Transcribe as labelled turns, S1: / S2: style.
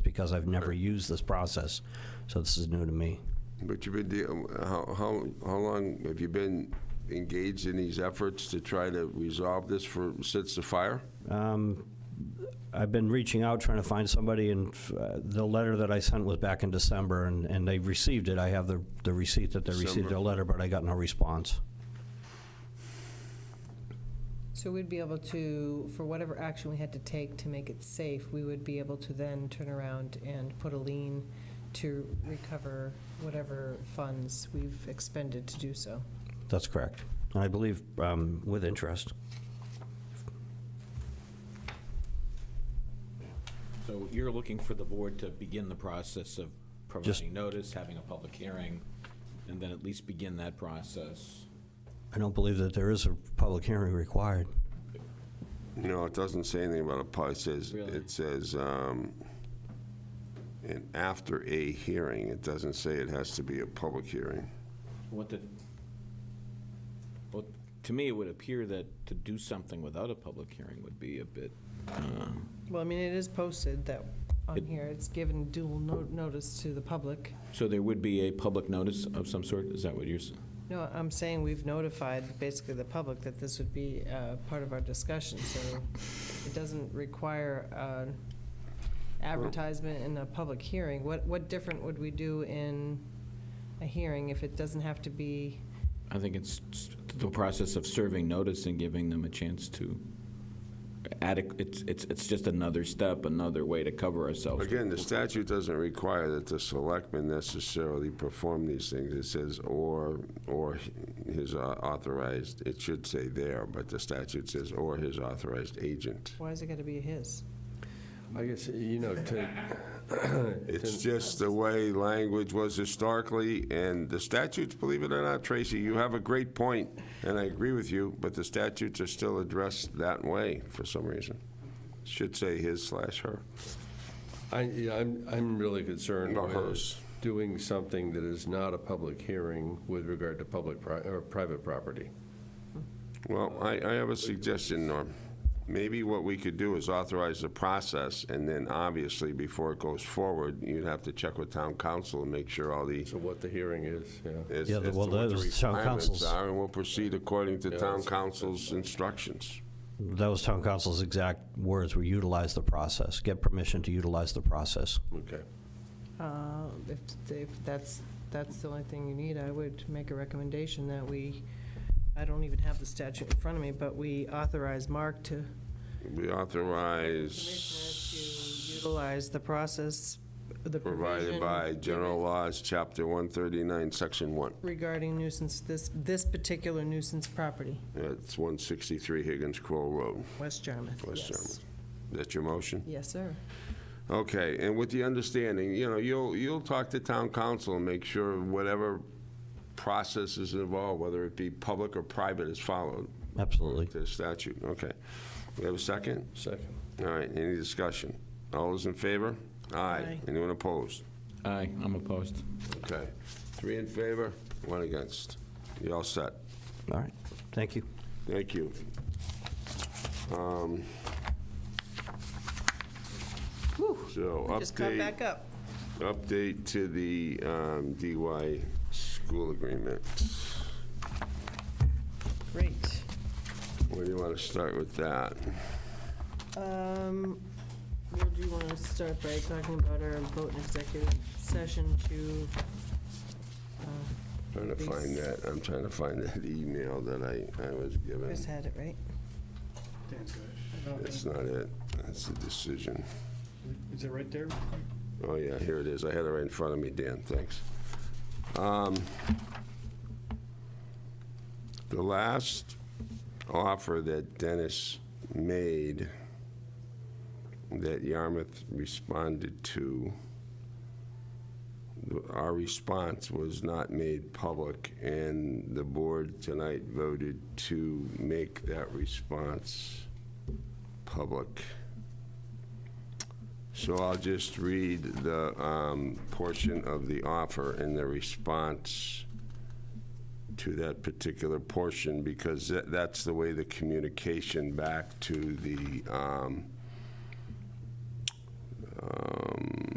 S1: because I've never used this process, so this is new to me.
S2: But you've been, dea- how, how, how long have you been engaged in these efforts to try to resolve this for, since the fire?
S1: Um, I've been reaching out, trying to find somebody, and uh, the letter that I sent was back in December, and, and they received it. I have the, the receipt that they received their
S2: December.
S1: letter, but I got no response.
S3: So we'd be able to, for whatever action we had to take to make it safe, we would be able to then turn around and put a lien to recover whatever funds we've expended to do so.
S1: That's correct. And I believe um, with interest.
S4: So you're looking for the board to begin the process of providing notice, having a public hearing, and then at least begin that process?
S1: I don't believe that there is a public hearing required.
S2: No, it doesn't say anything about a pub. It says,
S4: Really?
S2: it says, um, and after a hearing, it doesn't say it has to be a public hearing.
S4: What the, well, to me, it would appear that to do something without a public hearing would be a bit, uh,
S3: Well, I mean, it is posted that on
S4: It-
S3: here, it's given dual no- notice to the public.
S4: so there would be a public notice of some sort? Is that what you're, s-
S3: No, I'm saying we've notified basically the public that this would be uh, part of our discussion, so it doesn't require an advertisement and a public hearing. What, what different would we do in a hearing if it doesn't have to be,
S4: I think it's s- the process of serving notice and giving them a chance to adequate, it's, it's, it's just another step, another way to cover ourselves.
S2: Again, the statute doesn't require that the selectman necessarily perform these things. It says or, or his uh, authorized, it should say there, but the statute says or his authorized agent.
S3: why is it going to be his?
S5: I guess, you know, to,
S2: It's
S5: to,
S2: just the way language was historically, and the statutes, believe it or not, Tracy, you have a great point, and I agree with you, but the statutes are still addressed that way for some reason. Should say his slash her,
S5: I, yeah, I'm, I'm really concerned
S2: or
S5: with
S2: hers.
S5: doing something that is not a public hearing with regard to public, pri- or private property.
S2: Well, I, I have a suggestion, Norm. Maybe what we could do is authorize the process, and then obviously, before it goes forward, you'd have to check with town council and make sure all the,
S5: So what the hearing is, yeah.
S2: as, as
S1: Yeah,
S2: to
S1: the- well,
S2: what the
S1: that was town
S2: requirements
S1: council's-
S2: are, and we'll proceed according to
S5: Yeah,
S2: town
S5: that's-
S2: council's instructions.
S1: Those town council's exact words were utilize the process, get permission to utilize the process.
S5: Okay.
S3: Uh, If, if that's, that's the only thing you need, I would make a recommendation that we, I don't even have the statute in front of me, but we authorize Mark to
S2: We
S3: Commissioner to
S2: authorize,
S3: utilize the process, the
S2: provided
S3: provision
S2: by general laws, chapter 139, section 1.
S3: regarding nuisance, this, this particular nuisance property,
S2: That's 163 Higgins Crow Road,
S3: West Yarmouth.
S2: West
S3: Yes.
S2: Yarmouth. That's your motion?
S3: Yes, sir.
S2: Okay, and with the understanding, you know, you'll, you'll talk to town council and make sure whatever process is involved, whether it be public or private, is followed
S1: Absolutely.
S2: to the statute. Okay. We have a second?
S5: Second.
S2: All right, any discussion? All those in favor? Aye.
S3: Aye.
S2: Anyone opposed?
S4: Aye, I'm opposed.
S2: Okay. Three in favor, one against. You all set?
S1: All right. Thank you.
S2: Thank you. Um, So,
S3: Just come
S2: update,
S3: back up.
S2: update to the um, DY school agreement.
S3: Great.
S2: Where do you want to start with that?
S3: Um, Well, do you want to start by talking about our vote in executive session to, uh,
S2: Trying to find that, I'm trying to find that email that I, I was given.
S3: Chris had it, right?
S2: That's not it, that's the decision.
S6: Is it right there?
S2: Oh, yeah, here it is. I had it right in front of me, Dan, thanks. Um, The last offer that Dennis made that Yarmouth responded to, th- our response was not made public, and the board tonight voted to make that response public. So I'll just read the um, portion of the offer and the response to that particular portion, because tha- that's the way the communication back to the um, um,